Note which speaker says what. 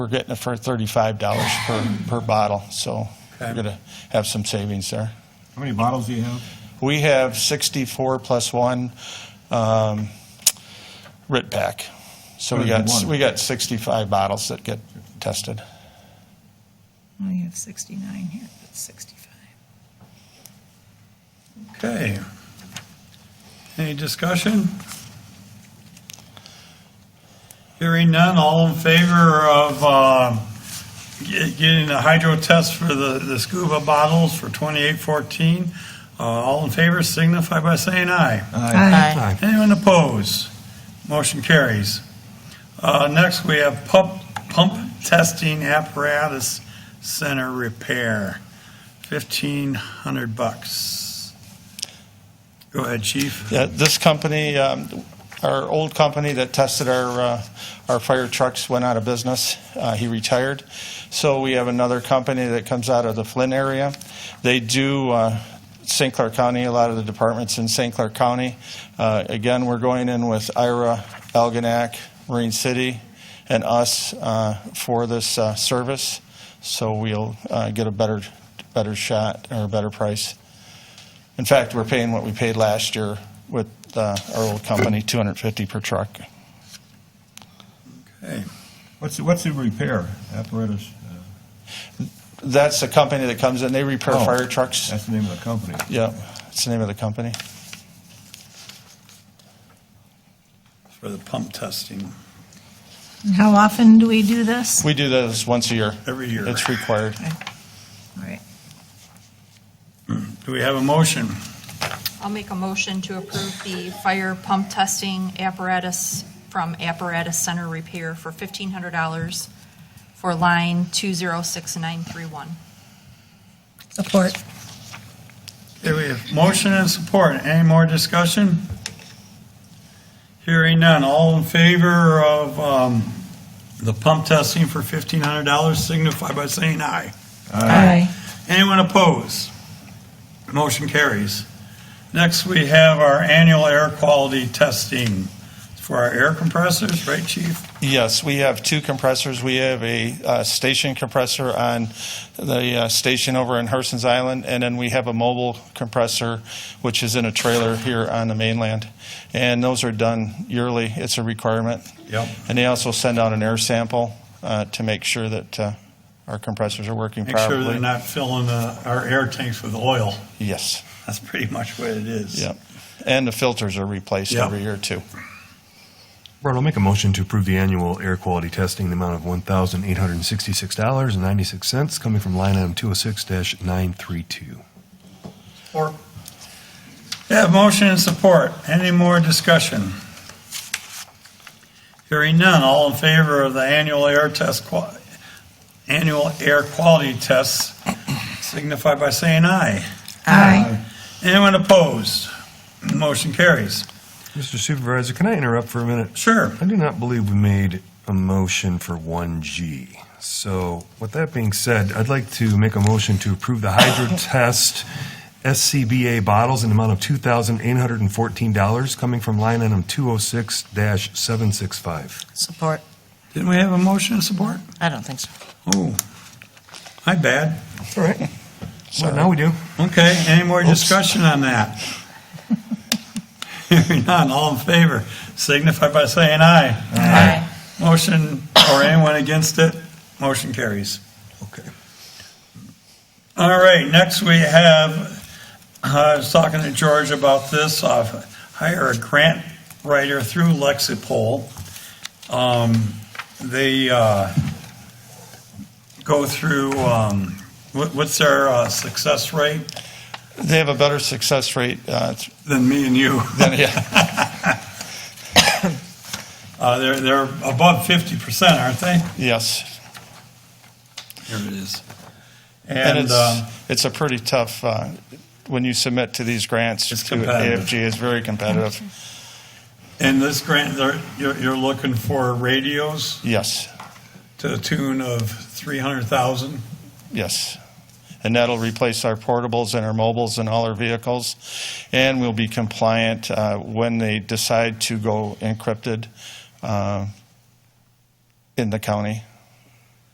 Speaker 1: We're getting it for thirty-five dollars per, per bottle, so we're gonna have some savings there.
Speaker 2: How many bottles do you have?
Speaker 1: We have sixty-four plus one, um, Rit Pack. So we got, we got sixty-five bottles that get tested.
Speaker 3: I have 69 here, but 65.
Speaker 4: Okay. Any discussion? Hearing none, all in favor of uh, ge- getting the hydro test for the the scuba bottles for 2814? uh, All in favor signify by saying aye.
Speaker 5: Aye.
Speaker 4: Anyone opposed? Motion carries. Uh, Next, we have pump, pump testing apparatus center repair, 1,500 bucks. Go ahead, chief.
Speaker 1: Yeah, this company, um, our old company that tested our, uh, our fire trucks went out of business. Uh, He retired. So we have another company that comes out of the Flint area. They do uh, St. Clair County, a lot of the departments in St. Clair County. Uh, Again, we're going in with Ira, Algonac, Marine City, and us uh, for this uh, service. So we'll uh, get a better, better shot or a better price. In fact, we're paying what we paid last year with uh, our old company, 250 per truck.
Speaker 4: Hey,
Speaker 2: What's, the- what's the repair apparatus? Uh,
Speaker 1: That's the company that comes in, they repair
Speaker 2: Oh.
Speaker 1: fire trucks.
Speaker 2: That's the name of the company.
Speaker 1: Yeah, that's the name of the company.
Speaker 4: for the pump testing,
Speaker 3: And How often do we do this?
Speaker 1: We do those once a year.
Speaker 4: Every year.
Speaker 1: It's required.
Speaker 3: All right.
Speaker 4: do we have a motion?
Speaker 5: I'll make a motion to approve the fire pump testing apparatus from Apparatus Center Repair for $1,500 for line 206931.
Speaker 3: Support.
Speaker 4: Okay, we have motion and support. Any more discussion? Hearing none. All in favor of um, the pump testing for $1,500 signify by saying aye.
Speaker 3: Aye.
Speaker 4: Anyone opposed? Motion carries. Next, we have our annual air quality testing for our air compressors, right, chief?
Speaker 1: Yes, we have two compressors. We have a uh, station compressor on the uh, station over in Herson's Island, and then we have a mobile compressor, which is in a trailer here on the mainland. And those are done yearly. It's a requirement.
Speaker 4: Yep.
Speaker 1: And they also send out an air sample uh, to make sure that uh, our compressors are working
Speaker 4: Make sure
Speaker 1: properly.
Speaker 4: they're not filling uh, our air tanks with oil.
Speaker 1: Yes,
Speaker 4: That's pretty much what it is.
Speaker 1: yep. And the filters are replaced
Speaker 4: Yep.
Speaker 1: every year, too.
Speaker 6: Robert, I'll make a motion to approve the annual air quality testing in the amount of $1,866.96 coming from line item 206-932.
Speaker 4: Or- Yeah, motion and support. Any more discussion? Hearing none. All in favor of the annual air test, qua- annual air quality tests signify by saying aye.
Speaker 3: Aye.
Speaker 4: Anyone opposed? Motion carries.
Speaker 6: Mr. Supervisor, can I interrupt for a minute?
Speaker 4: Sure.
Speaker 6: I do not believe we made a motion for 1G. So with that being said, I'd like to make a motion to approve the hydro test SCBA bottles in the amount of $2,814 coming from line item 206-765.
Speaker 7: Support.
Speaker 4: Didn't we have a motion to support?
Speaker 7: I don't think so.
Speaker 4: Oh, my bad.
Speaker 6: All right. Well, now we do.
Speaker 4: Okay, any more discussion on that? Hearing none, all in favor, signify by saying aye.
Speaker 7: Aye.
Speaker 4: Motion, or anyone against it, motion carries.
Speaker 6: Okay.
Speaker 4: All right, next we have, uh, I was talking to George about this, uh, hire a grant writer through Lexipol. Um, They uh, go through, um, what- what's their uh, success rate
Speaker 1: They have a better success rate uh, th-
Speaker 4: than me and you?
Speaker 1: than, yeah,
Speaker 4: Uh, They're they're above 50%, aren't they?
Speaker 1: yes.
Speaker 4: There it is.
Speaker 1: And
Speaker 4: And um,
Speaker 1: it's, it's a pretty tough, uh, when you submit to these grants, to
Speaker 4: It's competitive.
Speaker 1: AFG is very competitive.
Speaker 4: and this grant, they're- you're you're looking for radios
Speaker 1: Yes,
Speaker 4: to the tune of 300,000?
Speaker 1: yes. And that'll replace our portables and our mobiles and all our vehicles. And we'll be compliant uh, when they decide to go encrypted uh, in the county.